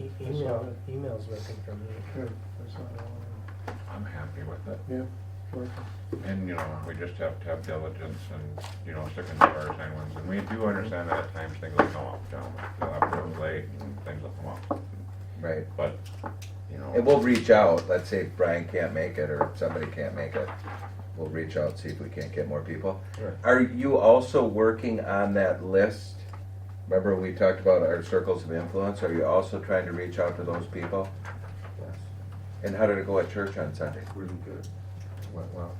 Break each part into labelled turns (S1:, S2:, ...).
S1: E-
S2: I saw
S1: Email,
S2: that.
S1: email's working for me.
S2: Good, I saw that one.
S3: I'm happy with it.
S2: Yeah, sure.
S3: And, you know, we just have to have diligence and, you know, sticking to our timelines. And we do understand that at times things will come up, down, they'll have to be uh, late and things will come up.
S4: Right,
S3: But, you
S4: and
S3: know,
S4: we'll reach out, let's say if Brian can't make it or somebody can't make it, we'll reach out, see if we can't get more people.
S3: Sure.
S4: Are you also working on that list? Remember we talked about our circles of influence, are you also trying to reach out to those people?
S5: Yes,
S4: And how did it go at church on Sunday?
S5: really good. Went well.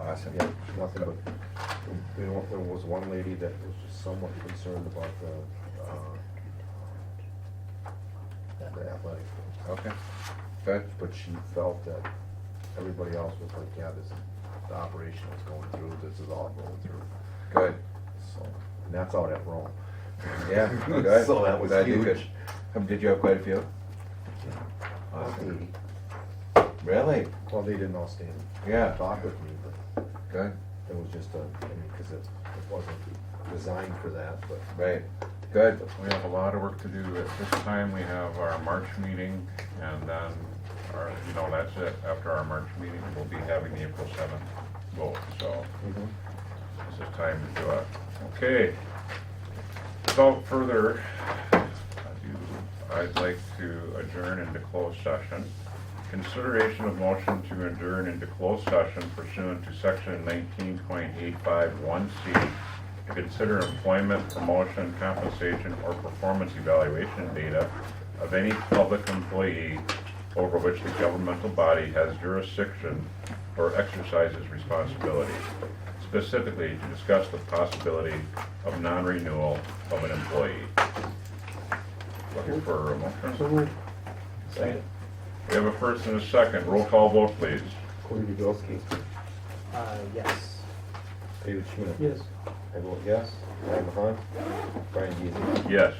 S4: Awesome,
S5: Yeah, nothing but, there wa- there was one lady that was just somewhat concerned about the, uh, the athletic, field,
S4: okay, good,
S5: but she felt that everybody else was like, yeah, this, is- the operation was going through, this is all going through,
S4: good,
S5: so, and that's out at Rome.
S4: yeah, good.
S5: So that was
S4: Glad you could-
S5: huge.
S4: Um, Did you have quite a few?
S5: Awesome.
S4: Really?
S5: Well, they didn't all stand and
S4: Yeah,
S5: talk with me, but
S4: good,
S5: it was just a, I mean, cause it, it wasn't designed for that, but
S4: right, good,
S3: we have a lot of work to do. At this time, we have our March meeting and then, our, you know, that's it. After our March meeting, we'll be having the April seventh vote, so
S2: Mm-hmm.
S3: this is time to do it. Okay. Without further ado, I'd like to adjourn into closed session. Consideration of motion to adjourn into closed session pursuant to section nineteen point eight five one C to consider employment, promotion, compensation, or performance evaluation data of any public employee over which the governmental body has jurisdiction or exercises responsibility, specifically to discuss the possibility of non-renewal of an employee. Looking for a motion?
S2: So moved.
S3: We have a first and a second. Roll call vote, please.
S5: Corey Dubelski,
S1: Uh, yes.
S5: David Schmidt.
S2: Yes.
S5: I vote yes. Ryan Mahan. Brian Geezy.
S3: Yes.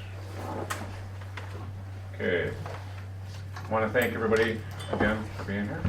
S3: Okay. Want to thank everybody again for being here.